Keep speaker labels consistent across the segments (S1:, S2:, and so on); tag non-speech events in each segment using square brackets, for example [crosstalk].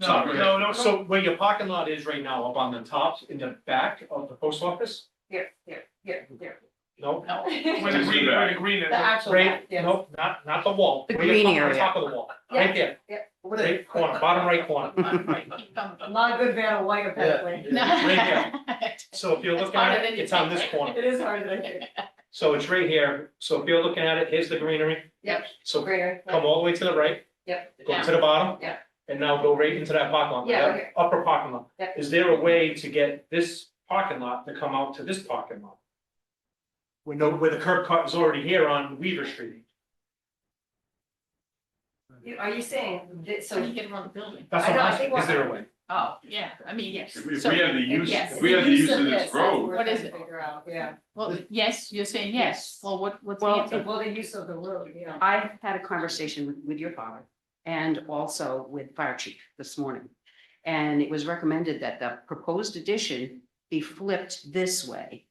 S1: No,
S2: Sorry.
S1: no, no, so where your parking lot is right now, up on the top, in the back of the post office,
S3: Yeah, yeah, yeah, yeah.
S1: no?
S3: [laughs] No.
S1: Where the green, where the green is.
S3: The actual
S1: Right,
S3: back, yes.
S1: nope, not, not the wall.
S4: The
S1: Where your
S4: green
S1: parking lot is,
S4: area.
S1: Top of the wall, right there,
S3: What
S1: right corner, bottom right
S3: [laughs]
S1: corner.
S3: a lot of good van a white apparently.
S1: Right So if you're looking at it, it's on this corner,
S3: [laughs] It is hard to think.
S1: so it's right here, so if you're looking at it, here's the greenery,
S3: Yep,
S1: so
S3: greater.
S1: come all the way to the right.
S3: Yep.
S1: Go to the bottom.
S3: Yeah.
S1: And now go right into that parking lot,
S3: Yeah,
S1: that
S3: okay.
S1: upper parking lot.
S3: Yeah.
S1: Is there a way to get this parking lot to come out to this parking lot? We know where the curb cut is already here on Weaver Street.
S3: You- Are you saying, that-
S5: So you
S3: so,
S5: get around the building.
S1: That's what
S3: I know, I
S1: I'm asking,
S3: think
S1: is there a way?
S5: Oh, yeah, I mean, yes.
S2: If we if
S5: So-
S2: we have the use,
S5: yes,
S2: if we have the use of this
S3: that's
S2: road,
S3: we're
S5: What
S3: trying
S5: is
S3: to
S5: it?
S3: Figure out, yeah.
S5: Well, yes, you're saying yes. Well, what, what's the
S4: Well,
S5: answer?
S3: Well, the use of the road, you know.
S4: I had a conversation with, with your father and also with fire chief this morning. And it was recommended that the proposed addition be flipped this way.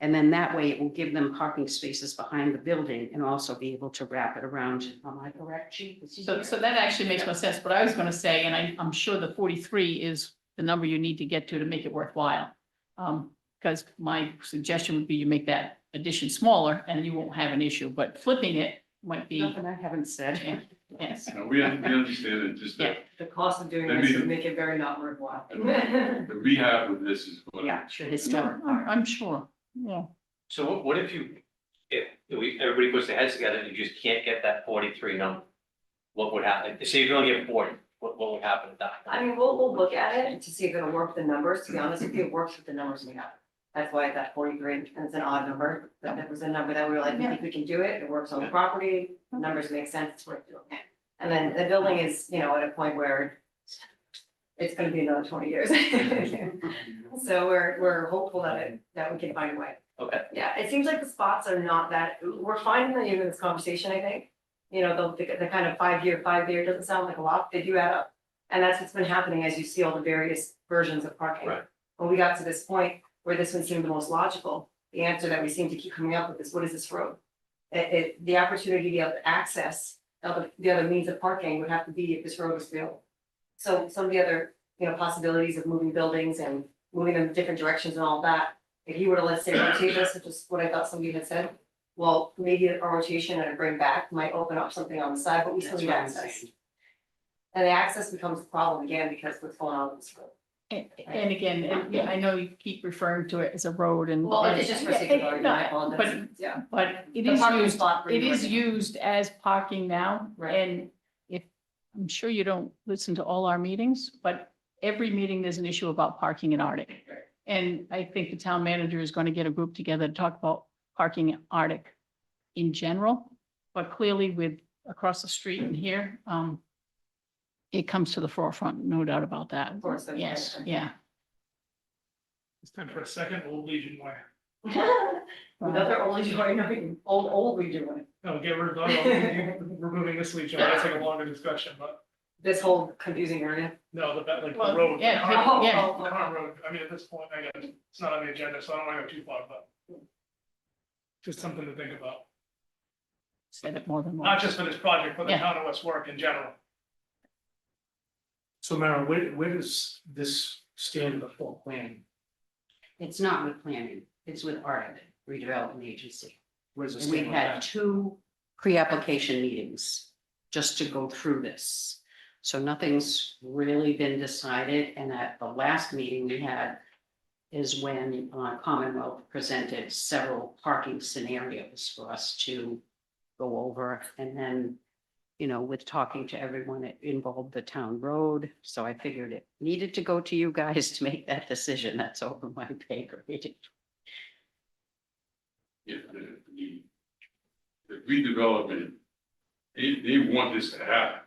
S4: And then that way it will give them parking spaces behind the building and also be able to wrap it around. Am I correct, chief? Is he
S5: So,
S4: here?
S5: so that actually makes more sense. What I was gonna say, and I, I'm sure the forty-three is the number you need to get to to make it worthwhile. Um, because my suggestion would be you make that addition smaller and you won't have an issue, but flipping it might be,
S4: Nothing I haven't said.
S5: yes.
S2: you know, we un- we understand it, just that
S3: The cost of doing
S2: I
S3: this
S2: mean-
S3: would make it very
S2: [laughs]
S3: not worthwhile.
S2: the rehab of this is what.
S4: Yeah, the historic
S5: No,
S4: part.
S5: I'm I'm [laughs] sure, yeah.
S6: So what, what if you, if we, everybody puts their heads together and you just can't get that forty-three number? What would happen? Say you can only get forty, what, what would happen at that?
S3: I mean, we'll, we'll look at it to see if it'll work with the numbers. To be honest with you, it works with the numbers we have. That's why that forty-three, and it's an odd number, but that was a number that we were like, we think we can do it. It works on the property, the numbers make sense, it's worth doing it. And then the building is, you know, at a point where it's gonna be another twenty years. [laughs] So we're, we're hopeful that it, that we can find a way.
S6: Okay.
S3: Yeah, it seems like the spots are not that, we're finding that even in this conversation, I think. You know, the, the kind of five-year, five-year doesn't sound like a lot, they do add up. And that's what's been happening as you see all the various versions of parking.
S6: Right.
S3: When we got to this point where this one seemed the most logical, the answer that we seem to keep coming up with is, what is this road? It, it, the opportunity to be able to access, other- the other means of parking would have to be if this road was built. So some of the other, you know, possibilities of moving buildings and moving them in different directions and all that. If you were to, let's say, rotate this, which is what I thought somebody had said, well, maybe a rotation and a bring back might open up something on the side, but we still
S4: That's
S3: need
S4: what I'm
S3: access.
S4: saying.
S3: And the access becomes a problem again because what's going on with this road.
S5: And, and again, and yeah, I know you keep referring to it as a road and.
S3: Well, it's just for sake of argument, I apologize.
S5: But,
S3: Yeah.
S5: but it
S3: The
S5: is
S3: parking
S5: used,
S3: spot for
S5: it is
S3: right [laughs]
S5: used as parking now.
S3: Right.
S5: And if, I'm sure you don't listen to all our meetings, but every meeting, there's an issue about parking in Arctic.
S3: Right.
S5: And I think the town manager is going to get a group together to talk about parking in Arctic in general. But clearly with across the street and here, um, it comes to the forefront, no doubt about that.
S3: Of course, that's
S5: Yes,
S3: right.
S5: yeah.
S1: It's time for a second old Legion way.
S3: now. Another old joint, old, old redoing,
S1: No, Oh, get rid
S3: no, I'm
S1: removing this Legion,
S3: Way, that's like
S1: a longer discussion, but
S3: this whole confusing area. [laughs]
S1: no, the, like
S5: Well, road, the yeah, Conner-
S3: Oh,
S5: yeah.
S3: oh, oh.
S1: road, I mean, at this point, I guess, it's not on the agenda, so I don't wanna go too far, but just something to think about.
S5: Said it more than once.
S1: not just for this project, for the
S5: Yeah.
S1: town of West Warwick in general. So Mara, where, where does this stand in the full plan?
S4: It's not with planning, it's with Arctic redevelopment agency.
S1: Where's
S4: And we had two pre-application meetings just to go through this. So nothing's really been decided, and at the last meeting we had is when uh, Commonwealth presented several parking scenarios for us to go over, and then, you know, with talking to everyone, it involved the town road, so I figured it needed to go to you guys to make that decision, that's over my pay grade.
S2: If the, the the redevelopment, they, they want this to happen.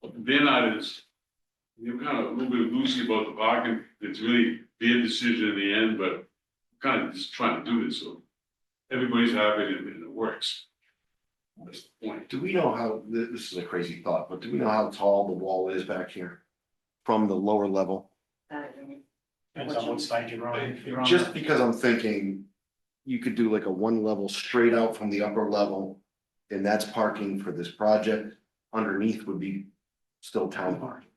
S2: But They're not as, they're kind of a little bit loosey about the parking, it's really their decision in the end, but kind of just trying to do this, so everybody's happy and and it works. That's the point.
S7: Do we know how, th- this is a crazy thought, but do we know how tall the wall is back here? From the lower level?
S3: I don't know.
S1: Depends on what side you're on. If you're on
S7: Just
S1: the-
S7: because I'm thinking you could do like a one level straight out from the upper level. And that's parking for this project. Underneath would be still town parking.